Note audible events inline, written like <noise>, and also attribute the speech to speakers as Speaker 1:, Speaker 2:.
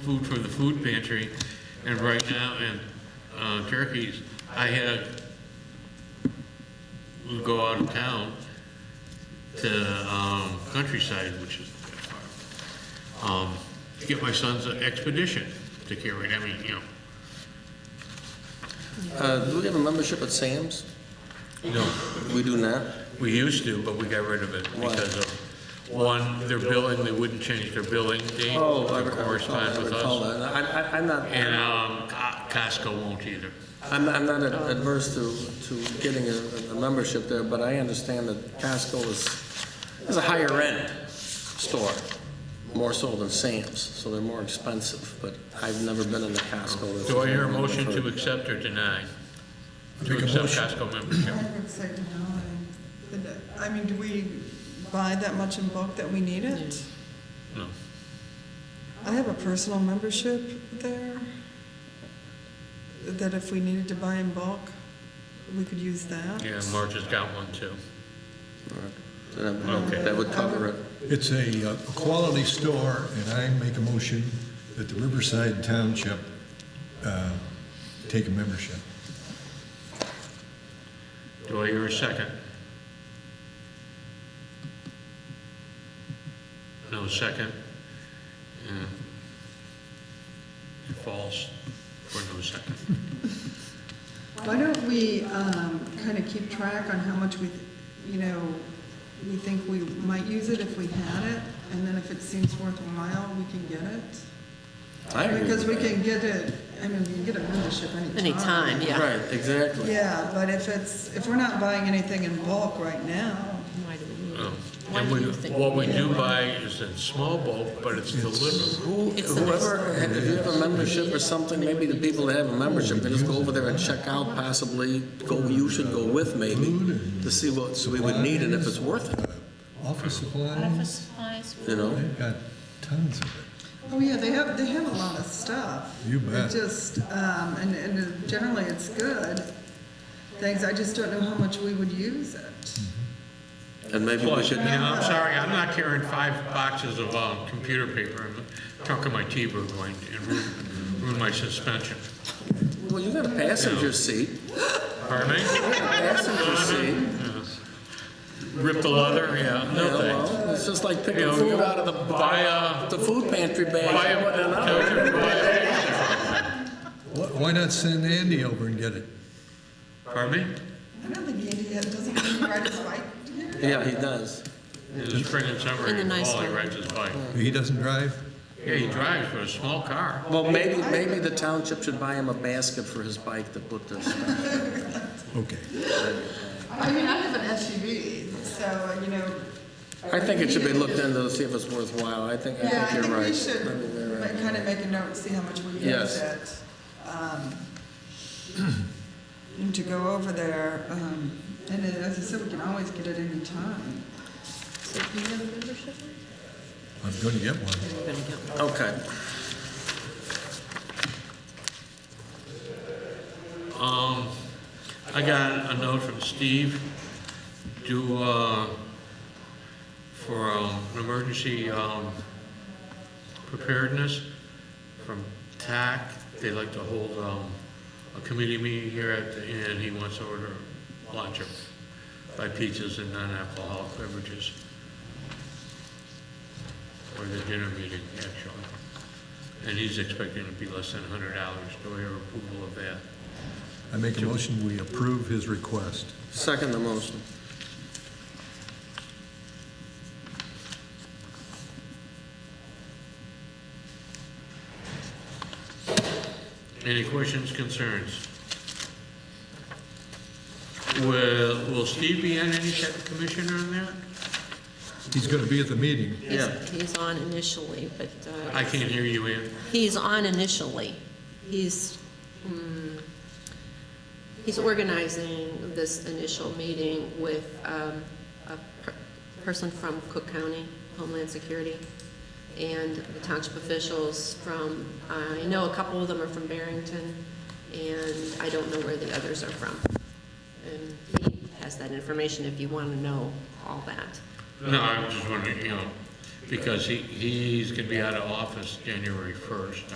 Speaker 1: food for the food pantry, and right now, and uh, turkeys, I had a, we go out of town to um, countryside, which is that far, um, to get my son's expedition to carry, I mean, you know.
Speaker 2: Uh, Do we have a membership at Sam's?
Speaker 1: No.
Speaker 2: We do not.
Speaker 1: We used to, but we got rid of it because of, one, their billing, they wouldn't change their billing date
Speaker 2: Oh, I
Speaker 1: to
Speaker 2: recall- I
Speaker 1: correspond
Speaker 2: recall-
Speaker 1: with
Speaker 2: I recall
Speaker 1: us.
Speaker 2: that. I- I- I'm not,
Speaker 1: And um, Co- Costco won't either.
Speaker 2: I'm I'm not adverse to, to getting a, a membership there, but I understand that Costco is, is a higher-end store, more so than Sam's, so they're more expensive, but I've never been in a Costco. that's-
Speaker 1: Do I hear a motion to accept or deny? To accept Costco membership?
Speaker 3: I would say no. I mean, do we buy that much in bulk that we need it?
Speaker 1: No.
Speaker 3: I have a personal membership there, that if we needed to buy in bulk, we could use that.
Speaker 1: Yeah, Marge has got one too.
Speaker 2: Then
Speaker 1: Okay.
Speaker 2: That would cover it.
Speaker 4: It's a uh, quality store, and I make a motion that the Riverside Township uh, take a membership.
Speaker 1: Do I hear a second? No second? Yeah. False, or no second?
Speaker 3: Why don't we kind of keep track on how much we, you know, we think we might use it if we had it, and then if it seems worthwhile, we can get it?
Speaker 2: I agree
Speaker 3: Because we
Speaker 2: with that.
Speaker 3: can get it, I mean, we can get a membership anytime.
Speaker 5: Anytime, yeah.
Speaker 2: Right, exactly.
Speaker 3: Yeah, but if it's, if we're not buying anything in bulk right now,
Speaker 5: Why do we need
Speaker 1: No.
Speaker 5: it? Why
Speaker 1: Oh. And
Speaker 5: do
Speaker 1: we,
Speaker 5: you think
Speaker 1: what we
Speaker 5: need
Speaker 1: do
Speaker 5: it?
Speaker 1: buy is in small bulk, but it's delivered.
Speaker 2: Who-
Speaker 5: It's the best
Speaker 2: Whoever, if you have a membership or something, maybe the people that have a membership, they just go over there and check out possibly, go, you should go with maybe, to see what we would need and if it's worth it,
Speaker 4: Uh, Office supplies,
Speaker 5: Office supplies?
Speaker 2: you know?
Speaker 4: they've got tons of it.
Speaker 3: oh yeah, they have, they have a lot of stuff.
Speaker 4: You bet.
Speaker 3: It just, um, and, and generally it's good things, I just don't know how much we would use it.
Speaker 2: And maybe we
Speaker 1: Plus, you
Speaker 2: should,
Speaker 1: know, I'm sorry, I'm not carrying five boxes of, um, computer paper. I'm talking my T-bird going and ruin, ruin my suspension.
Speaker 2: well, you got a passenger seat,
Speaker 1: Pardon me?
Speaker 2: passenger seat.
Speaker 1: Rip the leather, yeah,
Speaker 2: you
Speaker 1: no
Speaker 2: know,
Speaker 1: thanks.
Speaker 2: well, It's just like
Speaker 1: You
Speaker 2: picking
Speaker 1: know,
Speaker 2: food
Speaker 1: you-
Speaker 2: out of the,
Speaker 1: Buy a,
Speaker 2: the food pantry
Speaker 1: buy
Speaker 2: bag.
Speaker 1: a,
Speaker 2: and putting it out.
Speaker 1: tell you to buy a-
Speaker 4: Wh- Why not send Andy over and get it?
Speaker 1: pardon me?
Speaker 3: I don't think Andy has- doesn't he ride his bike here?
Speaker 2: Yeah, he does.
Speaker 1: This spring and summer,
Speaker 5: In the
Speaker 1: and
Speaker 5: nice
Speaker 1: fall, he
Speaker 5: weather.
Speaker 1: rides his bike.
Speaker 4: He doesn't drive?
Speaker 1: Yeah, he drives, but a small car.
Speaker 2: Well, maybe, maybe the township should buy him a basket for his bike to put this.
Speaker 4: Okay.
Speaker 3: I mean, I have an SUV, so, you know.
Speaker 2: I think it should be looked into to see if it's worthwhile. I think, I
Speaker 3: Yeah, I
Speaker 2: think
Speaker 3: think
Speaker 2: you're right.
Speaker 3: we
Speaker 2: I think you're
Speaker 3: should
Speaker 2: right.
Speaker 3: kind of make a note, and see how much we use
Speaker 2: Yes.
Speaker 3: it. um, <clears throat> and To go over there, um, and then, as I said, we can always get it any time.
Speaker 5: So do you have a membership?
Speaker 4: I'm going to get one.
Speaker 5: We're gonna get one.
Speaker 2: Okay.
Speaker 1: Um, I got a note from Steve to, uh, for, um, an emergency, um, preparedness from TAC. They like to hold, um, a committee meeting here at the inn. He wants to order lunch or buy pizzas and non-alcoholic beverages. Or the dinner meeting, actually. And he's expecting to be less than hundred dollars. Do I hear approval of that?
Speaker 4: I make a motion, we approve his request.
Speaker 2: Second the motion.
Speaker 1: Any questions, concerns? Will, will Steve be on any type of commission on that?
Speaker 4: He's going to be at the meeting.
Speaker 2: Yeah.
Speaker 5: He's- He's on initially, but,
Speaker 1: I
Speaker 5: uh,
Speaker 1: can't hear you, Ann.
Speaker 5: he's on initially. He's, mm, he's organizing this initial meeting with um, a per- person from Cook County Homeland Security and the township officials from, I know a couple of them are from Barrington, and I don't know where the others are from. And he has that information if you want to know all that.
Speaker 1: No, I was just wondering, you know, because he, he's gonna be out of office January first.